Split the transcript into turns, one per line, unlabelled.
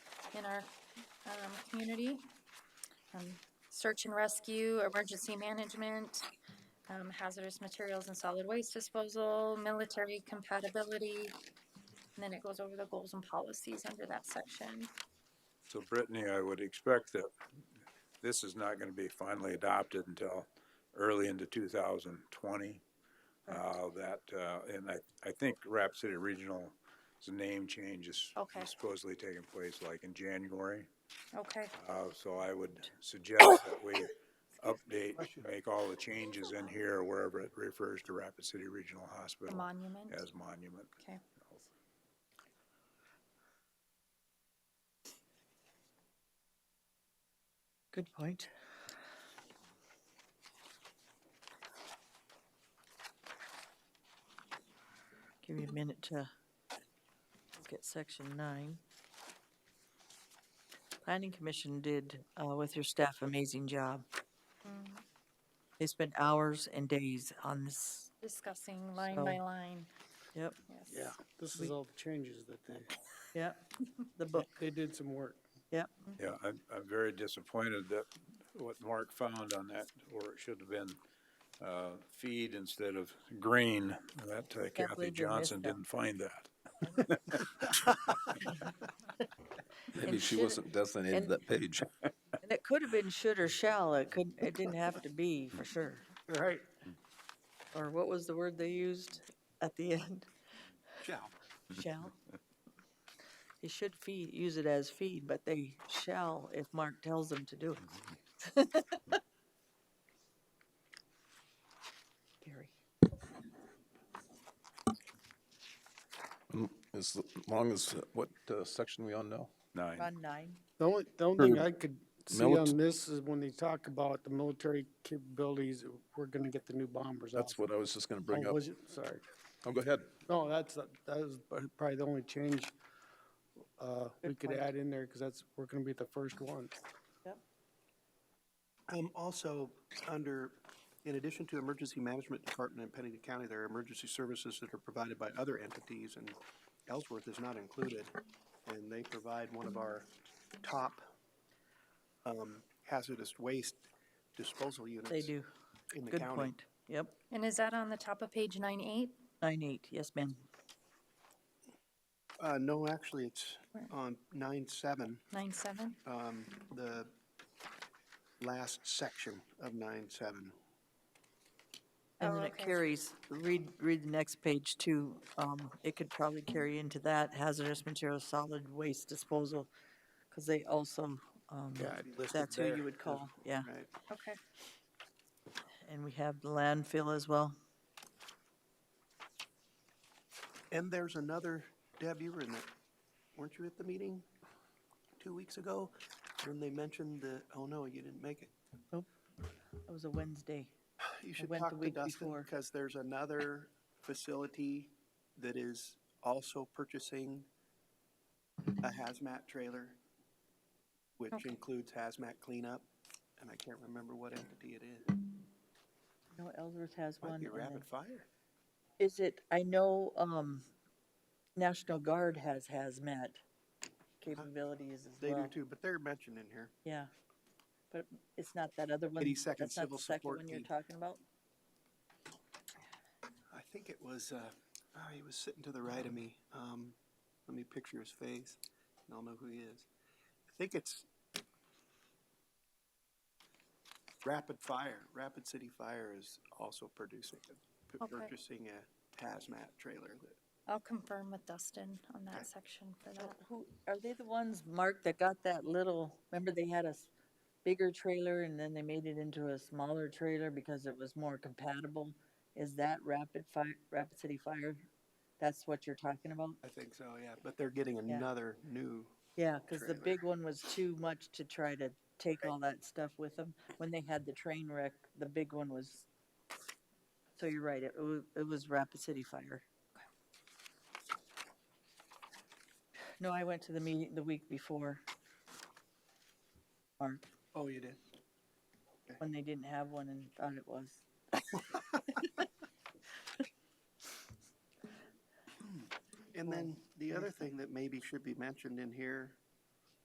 in our um, community. Um, Search and rescue, emergency management, um, hazardous materials and solid waste disposal, military compatibility. And then it goes over the goals and policies under that section.
So Brittany, I would expect that this is not gonna be finally adopted until early into two thousand twenty. Uh, that, uh, and I, I think Rapid City Regional's name change is
Okay.
is supposedly taking place like in January.
Okay,
Uh, so I would suggest that we update,
Question.
make all the changes in here wherever it refers to Rapid City Regional
the
Hospital
monument.
as monument.
Okay.
Good point. Give you a minute to look at section nine. Planning Commission did, uh, with your staff, amazing job.
Mm,
They spent hours and days on this.
Discussing line by
So-
line.
Yep,
Yes.
Yeah, this
We-
is all the changes that they,
yep, the book.
they did some work.
Yeah, I'm, I'm very disappointed that what Mark found on that, or it should have been, uh, feed instead of green. That uh,
believe we
Kathy
missed
Johnson
that.
didn't find that.
Maybe she
should-
wasn't designated
and-
that page.
And it could have been should or shall, it could, it didn't have to be, for sure.
Right.
Or what was the word they used at the end?
Shall.
Shall. They should feed, use it as feed, but they shall if Mark tells them to do it. Gary.
As long as, what uh, section we on now?
Nine.
On nine.
The only, the only thing
Or
I could see
milit-
on this is when they talk about the military capabilities, we're gonna get the new bombers out.
That's what I was just gonna bring
Oh,
up.
was it? Sorry.
Oh, go ahead.
No, that's, that was probably the only change, uh, we
Good
could
point.
add in there, cause that's, we're gonna be the first one.
Um, also, under, in addition to emergency management department in Pennington County, there are emergency services that are provided by other entities, and Ellsworth is not included. And they provide one of our top, um, hazardous waste disposal units.
They do.
In the
Good
county.
point. Yep.
And is that on the top of page nine eight?
Nine eight. Yes, ma'am.
Uh, no, actually, it's
Where?
on nine seven,
Nine seven?
um, the last section of nine seven.
And
Oh,
then it
okay.
carries, read, read the next page too. Um, it could probably carry into that hazardous material, solid waste disposal. Cause they also, um,
Yeah, I'd list it
that's who you
there
would
as-
call, yeah.
Right.
Okay.
And we have the landfill as well.
And there's another, Deb, you were in that, weren't you at the meeting two weeks ago? When they mentioned the, oh no, you didn't make it.
That was a Wednesday.
You should
went the
talk to
week
Dustin,
before.
because there's another facility that is also purchasing a hazmat trailer, which
Okay.
includes hazmat cleanup, and I can't remember what entity it is.
No, Ellsworth has one.
Might be
and then-
Rapid Fire.
Is it, I know, um, National Guard has hazmat capabilities as
They do
well.
too, but they're mentioned in here.
Yeah. But it's not that other one.
82nd
That's not the
Civil
second
Support
one you're
Team.
talking about?
I think it was, uh, oh, he was sitting to the right of me. Um, let me picture his face and I'll know who he is. I think it's Rapid Fire, Rapid City Fire is also producing, p-
Okay.
purchasing a hazmat trailer that
I'll confirm with Dustin on that section for that.
Who, are they the ones, Mark, that got that little, remember they had a s- bigger trailer and then they made it into a smaller trailer because it was more compatible? Is that Rapid Fire, Rapid City Fire? That's what you're talking about?
I think so, yeah, but they're getting another new.
Yeah, because the
trailer.
big one was too much to try to take all that stuff with them. When they had the train wreck, the big one was, so you're right, it was, it was Rapid City Fire. No, I went to the meeting the week before. Or
Oh, you did?
when they didn't have one and thought it was.
And then the other thing that maybe should be mentioned in here